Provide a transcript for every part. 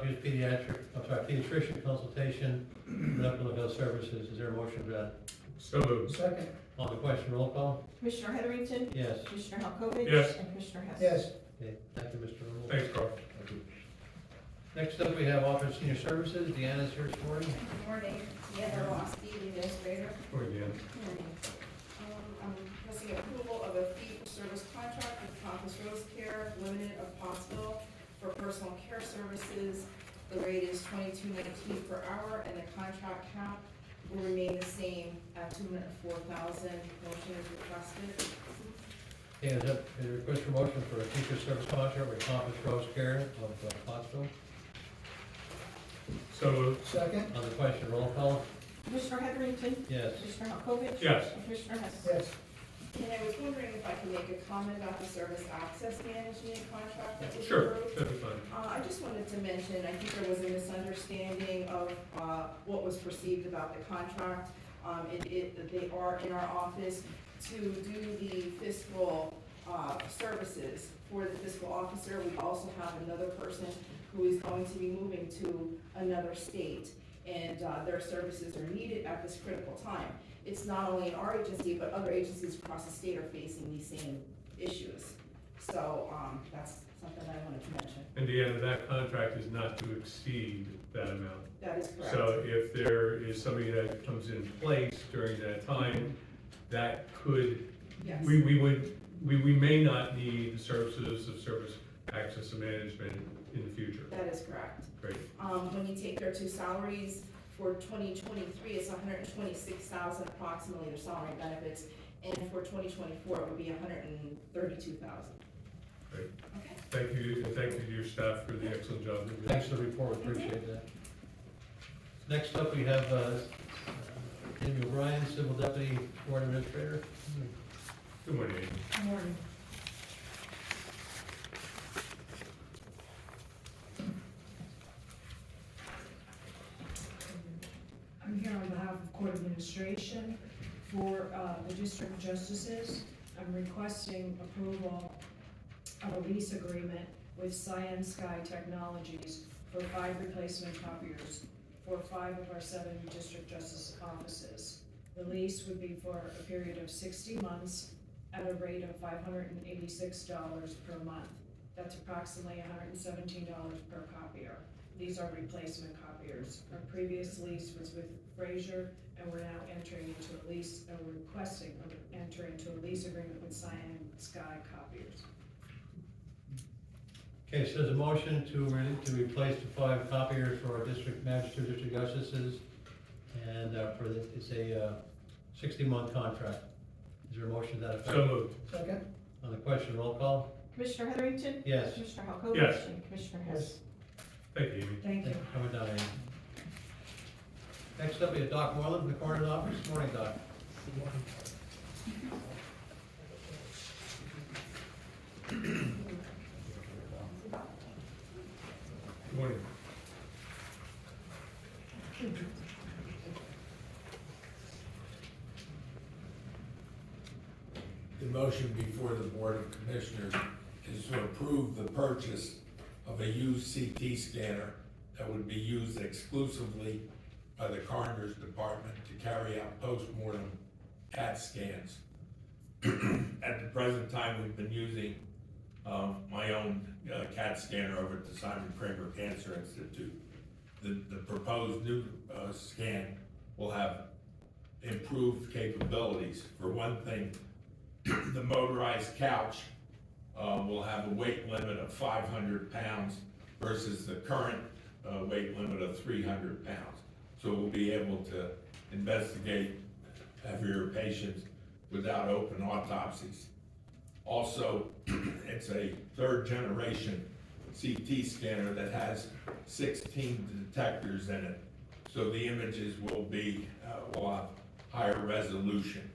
County's pediatric, I'm sorry, pediatrician consultation, medical and health services. Is there a motion for that? So moved. Second, On the question, roll call? Commissioner Heatherington? Yes. Commissioner Halkovich? Yes. And Commissioner Hess? yes, Okay, thank you, Mr. Rule. Thanks, Carl. Thank you. Next up, we have Office of Senior Services. Deanna's here this morning. Good morning, Deanna Ross, Deputy Administrator. Or again. Um, Requesting approval of a fee-for-service contract with Compass Rose Care Limited of Pottsville for personal care services. The rate is twenty-two nineteen per hour, and the contract cap will remain the same at two hundred and four thousand. Motion is requested. Okay, is that a request for motion for a teacher service contract with Compass Rose Care of uh, Pottsville? So moved. second, On the question, roll call? Commissioner Heatherington? Yes. Commissioner Halkovich? Yes. And Commissioner Hess? yes, And I was wondering if I could make a comment about the service access management contract that was approved. Sure, that'd be fine. Uh, I just wanted to mention, I think there was a misunderstanding of, uh, what was perceived about the contract. Um, it, it, they are in our office to do the fiscal, uh, services for the fiscal officer. We also have another person who is going to be moving to another state, and, uh, their services are needed at this critical time. It's not only in our agency, but other agencies across the state are facing these same issues. So, um, that's something I wanted to mention. And Deanna, that contract is not to exceed that amount. That is correct. So if there is somebody that comes in place during that time, that could, Yes. we, we would, we, we may not need the services of service access and management in the future. That is correct. Great. Um, when you take their two salaries for twenty twenty-three, it's hundred and twenty-six thousand approximately, their salary and benefits. And for twenty twenty-four, it would be hundred and thirty-two thousand. Great. Okay. Thank you, and thank you to your staff for the excellent job. that you did. Thanks for the report, We appreciate that. Next up, we have uh, Amy O'Brien, Civil Deputy Board Administrator. Good morning. Amy. Good morning. I'm here on behalf of court administration for uh, the district justices. I'm requesting approval of a lease agreement with Cyan Sky Technologies for five replacement copiers for five of our seven district justice offices. The lease would be for a period of sixty months at a rate of five hundred and eighty-six dollars per month. That's approximately hundred and seventeen dollars per copier. These are replacement copiers. Our previous lease was with Frazier, and we're now entering into a lease, and we're requesting to enter into a lease agreement with Cyan Sky Copiers. Okay, so there's a motion to, re- to replace the five copiers for our district magistrate, district justices, and uh, for, the- it's a sixty-month contract. Is there a motion to that So effect? moved. second, On the question, roll call? Commissioner Heatherington? Yes. Commissioner Halkovich? Yes. And Commissioner yes, Hess? Thank you, Amy. Thank you. Thank you for coming down, Amy. Next up, we have Doc Moreland from the coroner's office. Morning, Doc. Good morning. The motion before the Board of Commissioners is to approve the purchase of a used CT scanner that would be used exclusively by the Coroner's Department to carry out postmortem CAT scans. At the present time, we've been using, um, my own uh, CAT scanner over at the Simon Kramer Cancer Institute. The, the proposed new, uh, scan will have improved capabilities. For one thing, the motorized couch uh, will have a weight limit of 500 pounds versus the current uh, weight limit of 300 pounds. So we'll be able to investigate heavier patients without open autopsies. Also, it's a third-generation CT scanner that has 16 detectors in it, so the images will be, uh, will have higher resolution.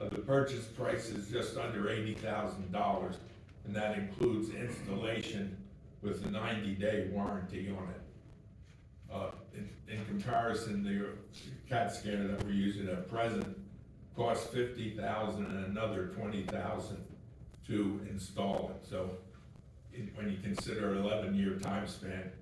Uh, The purchase price is just under eighty thousand dollars, and that includes installation with a ninety-day warranty on it. Uh, in, in comparison, the CAT scanner that we're using at present costs fifty thousand and another twenty thousand to install it, so in- when you consider eleven-year time span,